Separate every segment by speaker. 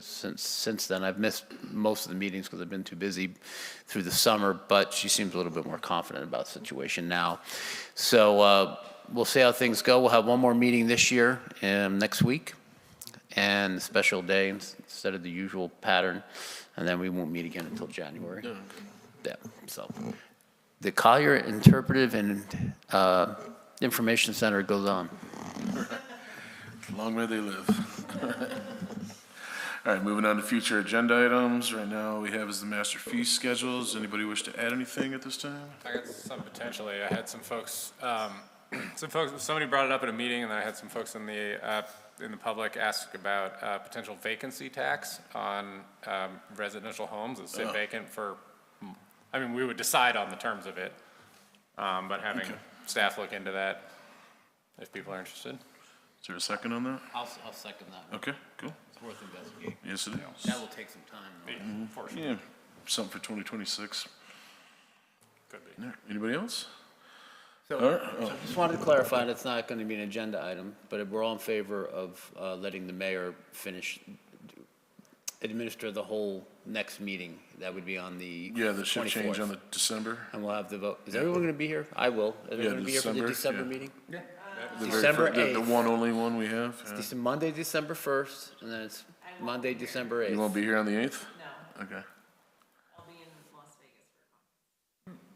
Speaker 1: since, since then. I've missed most of the meetings because I've been too busy through the summer, but she seems a little bit more confident about the situation now. So uh, we'll see how things go. We'll have one more meeting this year, um, next week, and a special day ins- instead of the usual pattern, and then we won't meet again until January. Yeah, so. The Collier Interpretive and uh, Information Center goes on.
Speaker 2: Long may they live. All right, moving on to future agenda items. Right now, we have is the master fee schedules. Anybody wish to add anything at this time?
Speaker 3: I got some potentially. I had some folks, um, some folks, somebody brought it up at a meeting, and then I had some folks in the, uh, in the public ask about uh, potential vacancy tax on um, residential homes that sit vacant for, I mean, we would decide on the terms of it, um, but having
Speaker 2: Okay.
Speaker 3: staff look into that, if people are interested.
Speaker 2: Is there a second on that?
Speaker 1: I'll, I'll second that one.
Speaker 2: Okay, cool.
Speaker 1: It's worth investigating.
Speaker 2: Yes, it is.
Speaker 1: That will take some time.
Speaker 3: For sure,
Speaker 2: Yeah, something for 2026.
Speaker 3: could be.
Speaker 2: All right, Anybody else?
Speaker 1: So-
Speaker 2: All right, oh,
Speaker 1: Just wanted to clarify, that's not going to be an agenda item, but we're all in favor of uh, letting the mayor finish, administer the whole next meeting. That would be on the 24th.
Speaker 2: Yeah, the shift change on the December,
Speaker 1: And we'll have the vote. Is everyone going to be here? I will. Is everyone going to be here for the
Speaker 2: December,
Speaker 1: December
Speaker 2: yeah.
Speaker 1: meeting?
Speaker 2: the very
Speaker 1: December
Speaker 2: fir- the- The
Speaker 1: 8th.
Speaker 2: one uh, only one we have. yeah.
Speaker 1: It's Monday, December 1st, and then it's Monday, December 8th.
Speaker 2: You won't be here on the 8th?
Speaker 4: No,
Speaker 2: Okay.
Speaker 4: I'll be in Las Vegas for a conference.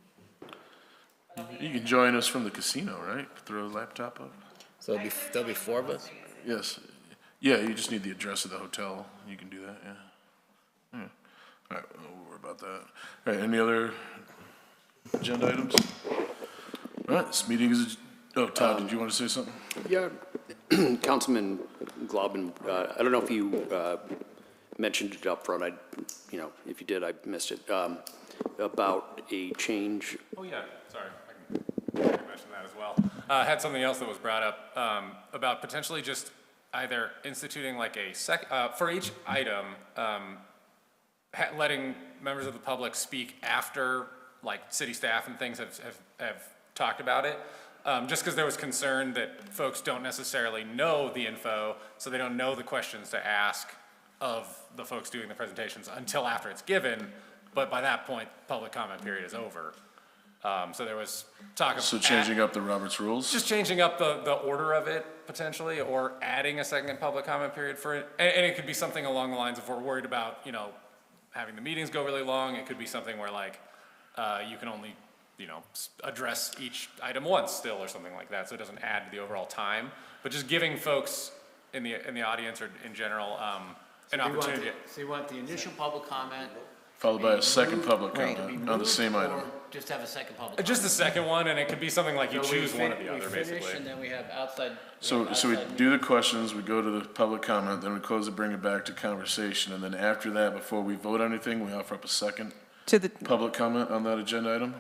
Speaker 2: You can join us from the casino, right? Throw a laptop up?
Speaker 1: So there'll be, there'll be four of us?
Speaker 2: Yes. Yeah, you just need the address of the hotel. You can do that, yeah. Yeah. All right, we'll worry about that. All right, any other agenda items? All right, this meeting is, oh, Todd, did you want to say something?
Speaker 5: Yeah, Councilman Globin, uh, I don't know if you uh, mentioned it up front. I, you know, if you did, I missed it, Um, about a change.
Speaker 3: Oh, yeah, sorry. I can mention that as well. Uh, I had something else that was brought up um, about potentially just either instituting like a sec, uh, for each item, um, ha- letting members of the public speak after, like, city staff and things have, have, have talked about it. Um, just because there was concern that folks don't necessarily know the info, so they don't know the questions to ask of the folks doing the presentations until after it's given. But by that point, public comment period is over. Um, so there was talk of.
Speaker 2: So changing up the Roberts rules?
Speaker 3: Just changing up the, the order of it potentially, or adding a second public comment period for it. And, and it could be something along the lines of we're worried about, you know, having the meetings go really long. It could be something where like, uh, you can only, you know, s- address each item once still or something like that. So it doesn't add to the overall time, but just giving folks in the, in the audience or in general, um, an opportunity.
Speaker 1: So you want the initial public comment?
Speaker 2: Followed by a second public
Speaker 1: to be
Speaker 2: comment on Uh, the
Speaker 1: moved,
Speaker 2: same item.
Speaker 1: or Just have a second public.
Speaker 3: Uh, Just the second one, and it could be something like you
Speaker 1: comment? So we
Speaker 3: choose one or
Speaker 1: fin-
Speaker 3: the
Speaker 1: we
Speaker 3: other,
Speaker 1: finish,
Speaker 3: basically.
Speaker 1: And then we have outside. we
Speaker 2: So,
Speaker 1: have
Speaker 2: so we
Speaker 1: outside-
Speaker 2: do the questions, we go to the public comment, then we close it, bring it back to conversation, and then after that, before we vote on anything, we offer up a second
Speaker 6: To the,
Speaker 2: public comment on that agenda item?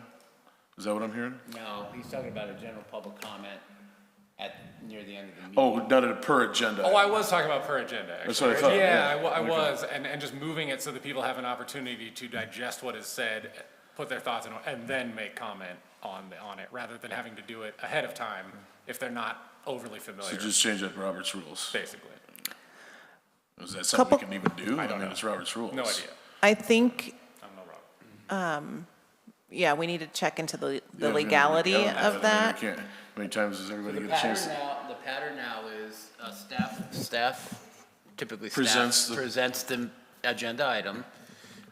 Speaker 2: Is that what I'm hearing?
Speaker 1: No, he's talking about a general public comment at, near the end of the meeting.
Speaker 2: Oh, not a per agenda.
Speaker 3: Oh, I was talking about per agenda. Actually.
Speaker 2: That's what I thought, yeah.
Speaker 3: Yeah, I wa- I
Speaker 2: Okay.
Speaker 3: was, and, and just moving it so that people have an opportunity to digest what is said, put their thoughts in, and then make comment on the, on it, rather than having to do it ahead of time if they're not overly
Speaker 2: So
Speaker 3: familiar.
Speaker 2: just change that to Robert's rules.
Speaker 3: basically,
Speaker 2: Is that something we
Speaker 6: Couple-
Speaker 2: can even do? I don't know. It's Robert's rules.
Speaker 3: no idea.
Speaker 6: I think,
Speaker 3: I'm no Rob.
Speaker 6: yeah, we need to check into the
Speaker 2: Yeah,
Speaker 6: the
Speaker 2: I mean,
Speaker 6: legality
Speaker 2: yeah, I mean,
Speaker 6: of
Speaker 2: we
Speaker 6: that.
Speaker 2: can't- How many times does everybody
Speaker 1: The
Speaker 2: get a
Speaker 1: pattern
Speaker 2: chance? to-
Speaker 1: now, the pattern now is uh, staff, staff, typically
Speaker 2: Presents
Speaker 1: staff,
Speaker 2: the-
Speaker 1: presents the agenda item.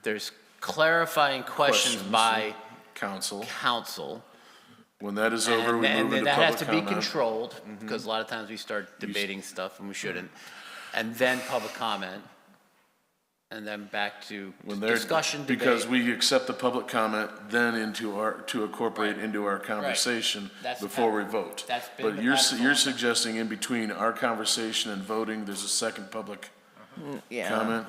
Speaker 1: There's clarifying questions
Speaker 2: Questions.
Speaker 1: by
Speaker 2: Council.
Speaker 1: council.
Speaker 2: When that is over,
Speaker 1: And
Speaker 2: we
Speaker 1: and
Speaker 2: move into
Speaker 1: that has
Speaker 2: public
Speaker 1: to be
Speaker 2: comment. Mm-hmm.
Speaker 1: controlled, because a lot of times we start debating stuff and we shouldn't.
Speaker 2: Mm-hmm.
Speaker 1: And then public comment, and then back to
Speaker 2: When they're-
Speaker 1: discussion,
Speaker 2: Because
Speaker 1: debate.
Speaker 2: we accept the public comment, then into our, to incorporate into our conversation
Speaker 1: That's the
Speaker 2: before we
Speaker 1: pattern.
Speaker 2: vote.
Speaker 1: That's been the
Speaker 2: But you're, su-
Speaker 1: pattern.
Speaker 2: you're suggesting in between our conversation and voting, there's a second public
Speaker 6: Yeah.
Speaker 2: comment?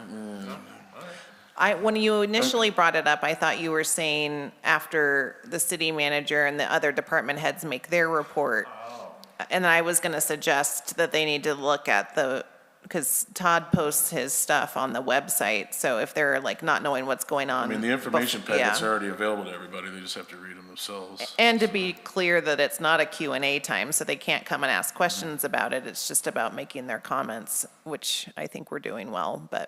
Speaker 6: I, when you initially brought it up, I thought you were saying after the city manager and the other department heads make their report.
Speaker 2: Oh.
Speaker 6: And I was going to suggest that they need to look at the, because Todd posts his stuff on the website. So if they're like not knowing what's going on.
Speaker 2: I mean, the information packets
Speaker 6: are.
Speaker 2: are already available to everybody, they just have to read them themselves.
Speaker 6: And to be clear that it's not a Q and A time, so they can't come and ask questions about it. It's just about making their comments, which I think we're doing well, but